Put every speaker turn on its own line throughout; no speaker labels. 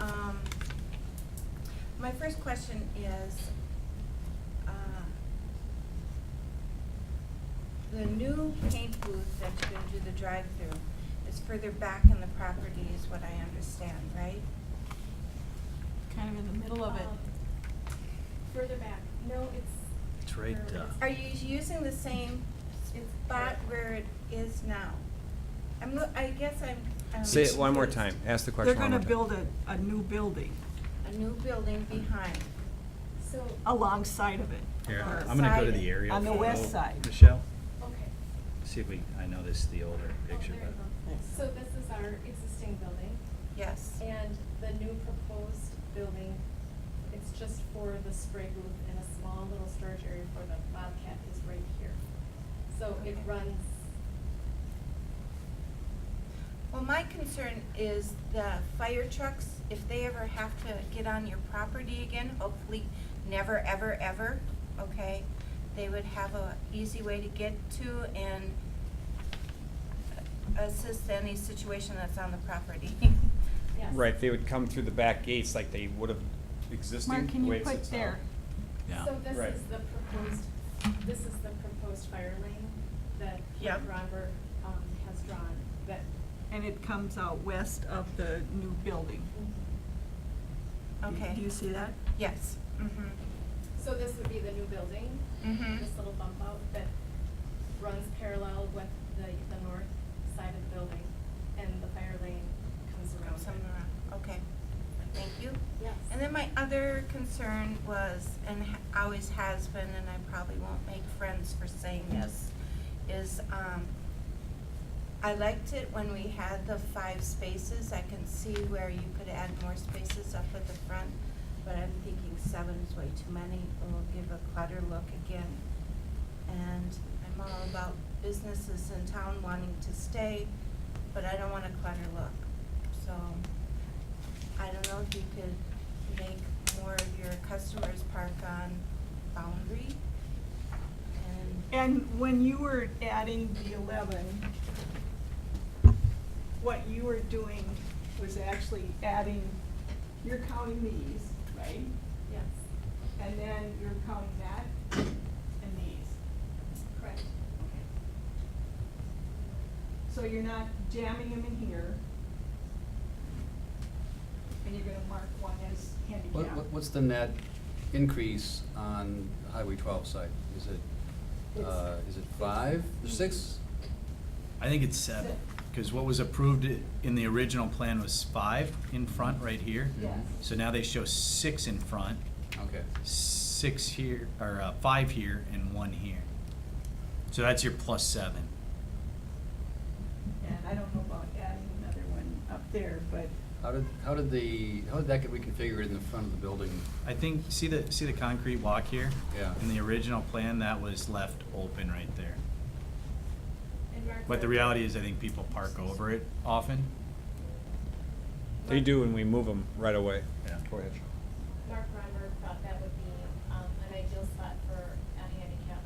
Um, my first question is, uh, the new paint booth that you're gonna do the drive-through is further back in the property is what I understand, right?
kind of in the middle of it.
Um, Further back, no, it's.
It's right,
where it
uh,
is.
Are you using the same spot where it is now? I'm, loo- I guess I'm. um,
Say it one more time, ask the
They're
question one
gonna
more time.
build a, a new building
A new building behind.
So,
Oh. alongside of it.
Here,
On the
I'm gonna go to
side.
the aerial.
On the west
photo,
side.
Michelle,
okay.
see if we, I know this is the older
Oh,
picture,
there you
but
go. So this is our existing building,
Yes.
and the new proposed building, it's just for the spray booth and a small little storage area for the Bobcat is right here. So it
Okay.
runs,
Well, my concern is the fire trucks, if they ever have to get on your property again, hopefully never, ever, ever, okay? They would have a easy way to get to and assist any situation that's on the property.
yes.
Right, they would come through the back gates like they would have existing,
Mark, can
the way
you
it
put
sits now.
there?
yeah.
So this
Right.
is the proposed, this is the proposed fire lane that
Yep.
Robert, um, has drawn, that.
And it comes out west of the new building. Do-
Okay.
Do you see that?
Yes, mhm,
So this would be the new building,
Mhm.
this little bump out that runs parallel with the, the north side of the building, and the fire lane comes around. it.
somewhere around, okay, thank you.
Yes.
And then my other concern was, and ha- always has been, and I probably won't make friends for saying this, is, um, I liked it when we had the five spaces, I can see where you could add more spaces up at the front, but I'm thinking seven is way too many, it'll give a clutter look again. And I'm all about businesses in town wanting to stay, but I don't want a clutter look, so I don't know if you could make more of your customers park on Boundary and,
And when you were adding the eleven, what you were doing was actually adding, you're counting these, right?
Yes,
And then you're counting that and these.
correct.
So you're not jamming them in here. And you're gonna mark one as
What,
handicap.
what- what's the net increase on Highway twelve site? Is it, uh, is it five, six?
I think it's seven, because what was approved i- in the original plan was five in front right here.
Yes.
So now they show six in front,
Mm-hmm.
Okay,
six here, or uh, five here and one here. So that's your plus seven.
And I don't know about adding another one up there, but
how did, how did the, how did that get reconfigured in the front of the building?
I think, see the, see the concrete walk here?
Yeah.
In the original plan, that was left open right there.
And Mark.
But the reality is, I think people park over it often.
They do, and we move them right away.
Yeah.
Go ahead.
Um,
Mark Reimer thought that would be, um, an ideal spot for a handicap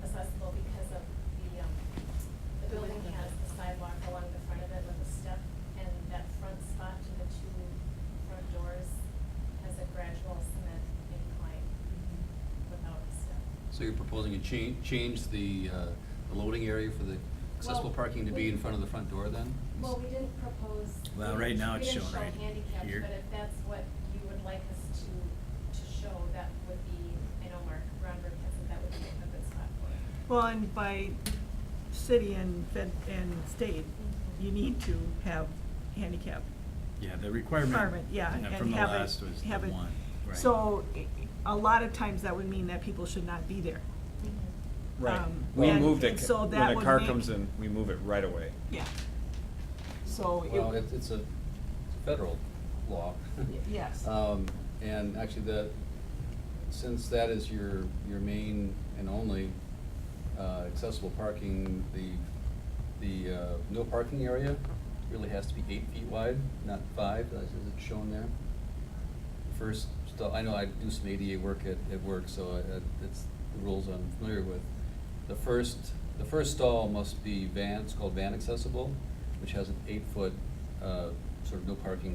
accessible because of the, um, the building has the sidewalk along the front of it with a step, and that front spot to the two front doors has a gradual cement incline without a step.
So you're proposing to change, change the, uh, the loading area for the accessible
Well,
parking to be in
we-
front of the front door then?
Well, we didn't propose. we
Well, right
didn't-
now it's shown right
We didn't show
here.
handicaps, but if that's what you would like us to, to show, that would be, I know Mark Ronberg has said that would be a good spot for it.
Well, and by city and fed, and state, you need to have handicap
Yeah, the requirement.
requirement, yeah, and
uh,
have it,
From the last was the
have it-
one. right.
So, i- a lot of times that would mean that people should not be there.
Mm-hmm.
Right,
Um,
we
and-
moved
and
it,
so
when
that
a
would
car
make-
comes in, we move it right away.
Yeah. So,
Well,
it,
it's, it's a federal law.
yes.
Um, and actually the, since that is your, your main and only, uh, accessible parking, the, the, uh, no parking area really has to be eight feet wide, not five, as is shown there. First, stu- I know I do some ADA work at, at work, so I- I- it's the rules I'm familiar with. The first, the first stall must be van, it's called van accessible, which has an eight-foot, uh, sort of no parking